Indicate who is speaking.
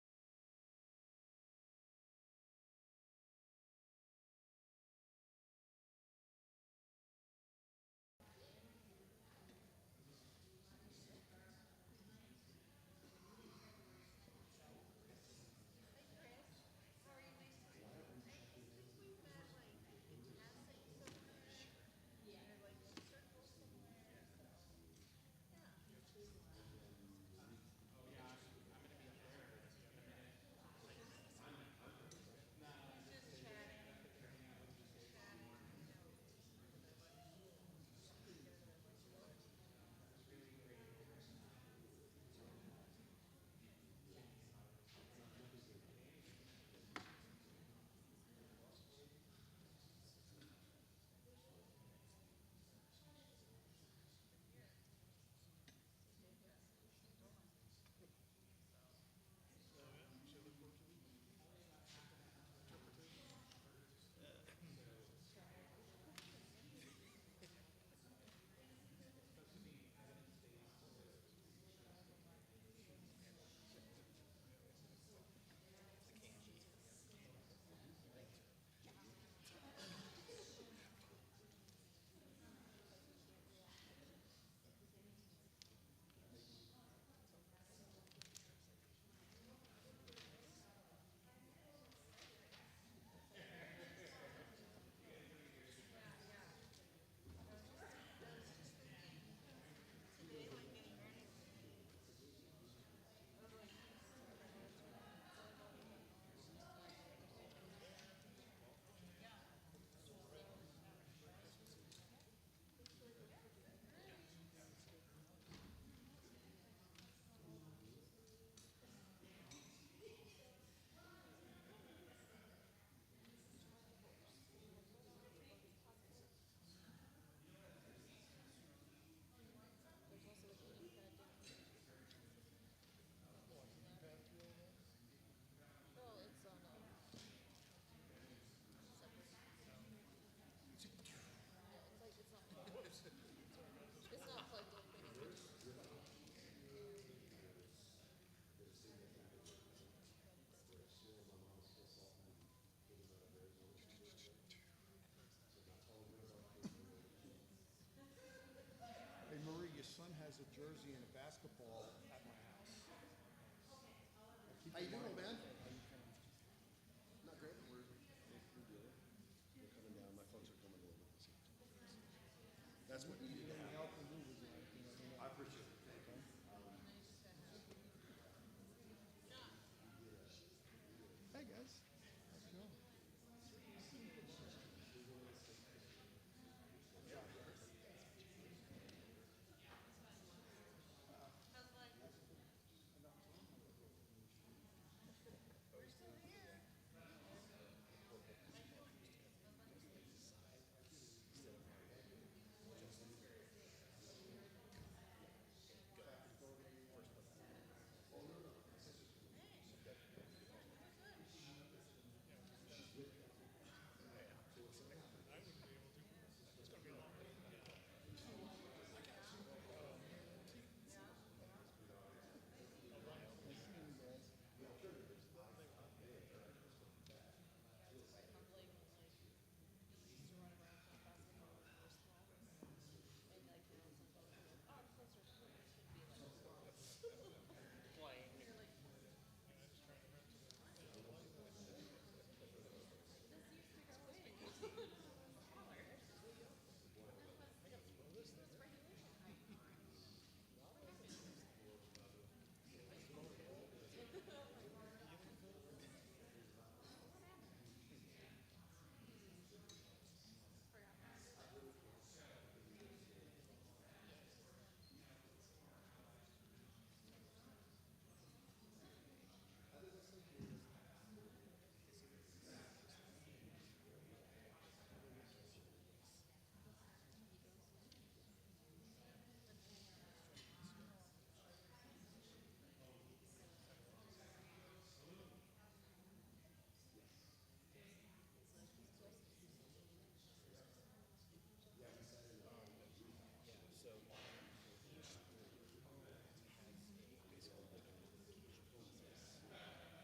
Speaker 1: a jersey and a basketball at my house. I keep
Speaker 2: How you
Speaker 1: them
Speaker 2: doing,
Speaker 1: on.
Speaker 2: man? Not great, but we're, we're doing it. We're coming down. My folks are coming over this evening. That's what needed to happen.